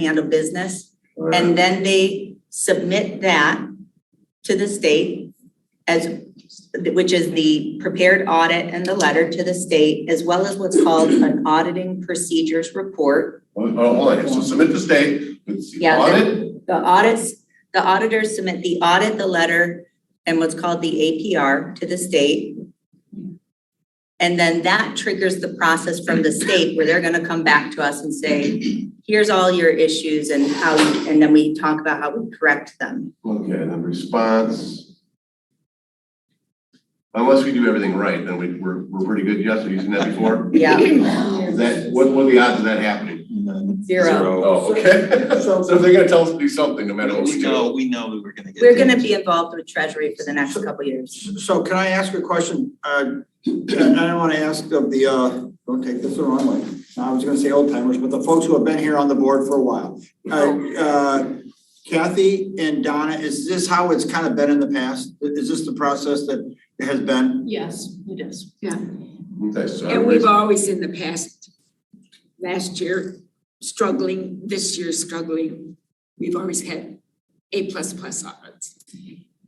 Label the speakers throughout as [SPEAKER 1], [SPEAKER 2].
[SPEAKER 1] handle business. And then they submit that to the state as, which is the prepared audit and the letter to the state, as well as what's called an auditing procedures report.
[SPEAKER 2] Well, oh, hold on, here. so submit the state, it's the
[SPEAKER 1] Yeah,
[SPEAKER 2] audit,
[SPEAKER 1] The audits, the auditors submit the audit, the letter, and what's called the APR to the state. And then that triggers the process from the state where they're gonna come back to us and say, here's all your issues and how, you-" and then we talk about how we correct them.
[SPEAKER 2] okay, and then response. Unless we do everything right, then we, we're, we're pretty good, yes, have you seen that before?
[SPEAKER 1] Yeah,
[SPEAKER 2] Is that, what, what are the odds of that happening?
[SPEAKER 1] zero.
[SPEAKER 2] Oh, okay, so if they're gonna tell us to do something, no matter what
[SPEAKER 3] We
[SPEAKER 2] we do.
[SPEAKER 3] know, we know we were gonna get.
[SPEAKER 1] We're gonna be involved with Treasury for the next couple years.
[SPEAKER 4] So can I ask a question? Uh, I don't wanna ask of the, uh, don't take this the wrong way. I was gonna say old timers, but the folks who have been here on the board for a while. Uh, uh, Kathy and Donna, is this how it's kind of been in the past? Is this the process that it has been?
[SPEAKER 5] Yes, it is. Yeah,
[SPEAKER 2] Okay, so
[SPEAKER 6] And we've
[SPEAKER 2] everybody's-
[SPEAKER 6] always in the past, last year struggling, this year struggling, we've always had A plus plus audits.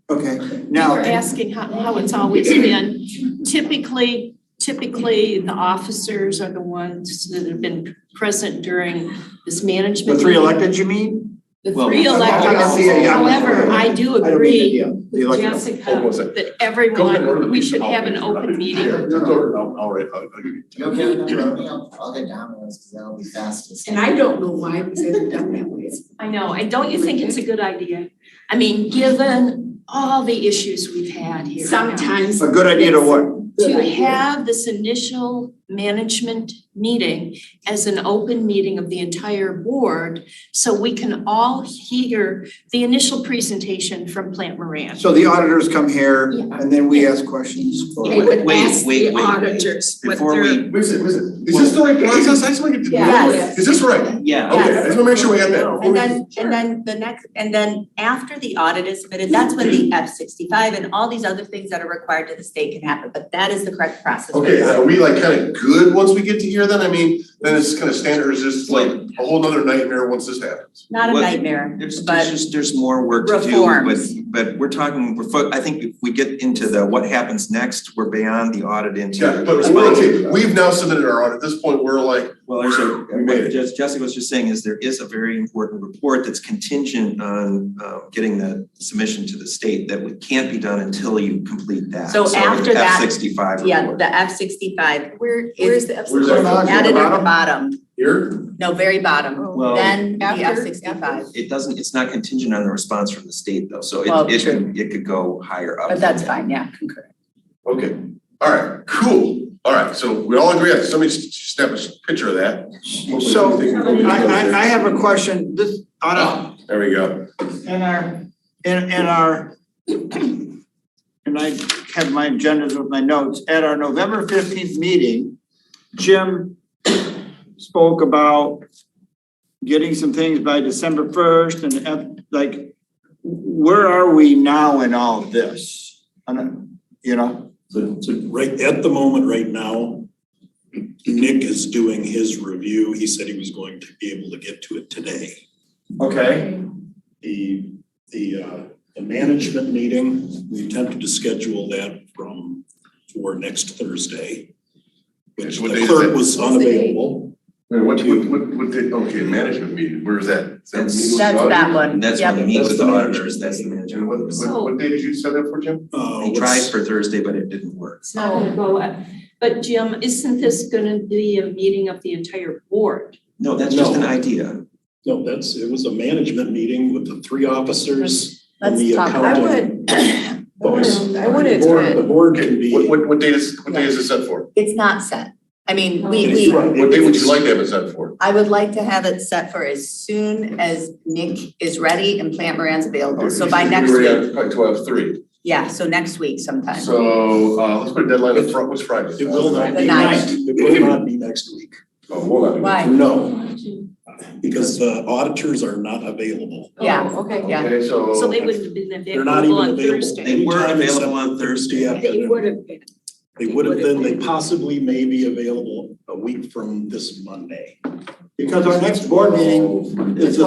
[SPEAKER 4] Okay,
[SPEAKER 5] You're
[SPEAKER 4] now,
[SPEAKER 5] asking how, how it's always been. Typically, typically, the officers are the ones that have been present during this
[SPEAKER 4] the
[SPEAKER 5] management.
[SPEAKER 4] three
[SPEAKER 5] meeting.
[SPEAKER 4] elected, you mean?
[SPEAKER 5] The
[SPEAKER 3] Well,
[SPEAKER 5] three
[SPEAKER 4] I
[SPEAKER 5] elected
[SPEAKER 4] can see it,
[SPEAKER 5] officers.
[SPEAKER 4] yeah.
[SPEAKER 5] However, I do
[SPEAKER 4] I don't mean
[SPEAKER 5] agree
[SPEAKER 4] the, uh, the
[SPEAKER 5] with
[SPEAKER 4] elected.
[SPEAKER 2] Hold on
[SPEAKER 5] Jessica
[SPEAKER 2] a second. Go
[SPEAKER 5] that
[SPEAKER 2] ahead, order the
[SPEAKER 5] everyone, we
[SPEAKER 2] piece of
[SPEAKER 5] should have an
[SPEAKER 2] all things.
[SPEAKER 5] open meeting.
[SPEAKER 2] Here, it's ordered. I'll- I'll write- I'll- I'll give you-
[SPEAKER 7] Okay, no, I'll, I'll get dominoes, cause that'll be fastest.
[SPEAKER 6] And I don't know why it was ever done that way.
[SPEAKER 5] I know, and don't you think it's a good idea? I mean, given all the issues we've had here. now,
[SPEAKER 6] Sometimes.
[SPEAKER 4] A good idea to what?
[SPEAKER 5] To have this initial management meeting as an open meeting of the entire board, so we can all hear the initial presentation from Plant Moran.
[SPEAKER 4] So the auditors come here
[SPEAKER 5] Yeah.
[SPEAKER 4] and then we ask questions for.
[SPEAKER 6] They would
[SPEAKER 3] Wait,
[SPEAKER 6] ask
[SPEAKER 3] wait, wait,
[SPEAKER 6] the
[SPEAKER 3] wait.
[SPEAKER 6] auditors what
[SPEAKER 3] Before
[SPEAKER 6] their-
[SPEAKER 3] we,
[SPEAKER 2] Wait a second, wait a second. Is this the right process? I just wanna get to.
[SPEAKER 1] Yes.
[SPEAKER 2] Is this right?
[SPEAKER 3] yeah,
[SPEAKER 1] Oh,
[SPEAKER 2] Okay, I just wanna make sure we got that.
[SPEAKER 1] And then, and then the next, and then after the audit is submitted, that's when the F sixty-five and all these other things that are required to the state can happen, but that is the correct process.
[SPEAKER 2] Okay, and are we like kinda good once we get to here then? I mean, then it's kinda standard, is this like a whole nother nightmare once this happens?
[SPEAKER 1] Not a
[SPEAKER 3] What-
[SPEAKER 1] nightmare,
[SPEAKER 3] there's, there's
[SPEAKER 1] but
[SPEAKER 3] just, there's more work to do, but,
[SPEAKER 1] reforms.
[SPEAKER 3] but we're talking, we're, fo- I think if we get into the what happens next, we're beyond the audit into.
[SPEAKER 2] Yeah, but we're okay, we've now submitted our audit, at this point, we're like,
[SPEAKER 3] Well, there's a,
[SPEAKER 2] We made it.
[SPEAKER 3] what Jess- Jessica was just saying is there is a very important report that's contingent on, uh, getting the submission to the state that we can't be done until you complete that.
[SPEAKER 1] So after that-
[SPEAKER 3] F sixty-five report.
[SPEAKER 1] yeah, the F sixty-five
[SPEAKER 5] Where,
[SPEAKER 1] where's
[SPEAKER 5] the?
[SPEAKER 2] where's that?
[SPEAKER 4] Bottom.
[SPEAKER 2] coming
[SPEAKER 1] added
[SPEAKER 2] from?
[SPEAKER 1] at the bottom,
[SPEAKER 2] Here?
[SPEAKER 1] no, very bottom,
[SPEAKER 3] Well,
[SPEAKER 1] then the
[SPEAKER 5] Oh. After-
[SPEAKER 1] F sixty-five,
[SPEAKER 3] It doesn't, it's not contingent on the response from the state though, so
[SPEAKER 1] Well,
[SPEAKER 3] it, it
[SPEAKER 1] true.
[SPEAKER 3] could, it could go higher up.
[SPEAKER 1] but that's fine, yeah, concurrent.
[SPEAKER 2] Okay, alright, cool. Alright, so we all agree, on it. somebody s- snap a picture of that. Hopefully
[SPEAKER 4] So
[SPEAKER 2] something-
[SPEAKER 4] I I I have a question, this, on a,
[SPEAKER 2] Ah, There we go.
[SPEAKER 4] in our, in in our. And I have my agendas with my notes, at our November fifteenth meeting, Jim spoke about. Getting some things by December first and F- like, where are we now in all this? And, you know,
[SPEAKER 8] So, so right, at the moment, right now, Nick is doing his review. He said he was going to be able to get to it today.
[SPEAKER 4] okay,
[SPEAKER 8] The, the, uh, the management meeting, we attempted to schedule that from, for next Thursday. Which
[SPEAKER 2] What day
[SPEAKER 8] the
[SPEAKER 2] is
[SPEAKER 8] clerk
[SPEAKER 2] it?
[SPEAKER 8] was unavailable.
[SPEAKER 2] Wait, what, what, what, what, did- okay, management meeting, where is that? Is that meeting with the
[SPEAKER 1] That's
[SPEAKER 2] auditor?
[SPEAKER 1] that one,
[SPEAKER 3] And that's when
[SPEAKER 1] yep,
[SPEAKER 3] we meet with the
[SPEAKER 8] That's the
[SPEAKER 3] auditors, that's the manager.
[SPEAKER 2] And what, what, what day did you set up for, Jim?
[SPEAKER 8] Uh,
[SPEAKER 3] They tried
[SPEAKER 8] what's-
[SPEAKER 3] for Thursday, but it didn't work.
[SPEAKER 5] It's not gonna go up, but Jim, isn't this gonna be a meeting of the entire board?
[SPEAKER 3] No, that's just
[SPEAKER 8] No.
[SPEAKER 3] an idea.
[SPEAKER 8] No, that's, it was a management meeting with the three officers and
[SPEAKER 1] Let's
[SPEAKER 8] the
[SPEAKER 1] talk about
[SPEAKER 8] accountant. folks.
[SPEAKER 6] I would
[SPEAKER 8] The board, the board can
[SPEAKER 2] Okay,
[SPEAKER 8] be.
[SPEAKER 2] what, what, what date is, what day is it set for?
[SPEAKER 9] It's not set. I mean, we, we,
[SPEAKER 8] It's right.
[SPEAKER 2] What day would you like to have it set for?
[SPEAKER 9] I would like to have it set for as soon as Nick is ready and Plant Moran's available. So by next
[SPEAKER 2] We're
[SPEAKER 9] week,
[SPEAKER 2] at Probably twelve, three.
[SPEAKER 9] yeah, so next week sometime.
[SPEAKER 2] So, uh, let's put a deadline of, Fri- what's Friday?
[SPEAKER 8] It will not
[SPEAKER 9] The
[SPEAKER 8] be next, it will not be next week.
[SPEAKER 2] Oh, hold on.
[SPEAKER 9] Why?
[SPEAKER 8] No, because the auditors are not available.
[SPEAKER 9] Yeah.
[SPEAKER 5] Oh, okay.
[SPEAKER 9] Yeah.
[SPEAKER 2] Okay, so.
[SPEAKER 5] So they wouldn't have been
[SPEAKER 8] They're not
[SPEAKER 5] available
[SPEAKER 8] even
[SPEAKER 5] on
[SPEAKER 8] available.
[SPEAKER 5] Thursday.
[SPEAKER 3] They were
[SPEAKER 8] Anytime
[SPEAKER 3] available
[SPEAKER 8] except
[SPEAKER 3] on Thursday.
[SPEAKER 8] Thursday
[SPEAKER 6] They
[SPEAKER 8] afternoon.
[SPEAKER 6] would have been.
[SPEAKER 8] They would have been, they possibly may be available a week from this Monday.
[SPEAKER 4] Because our next board meeting is the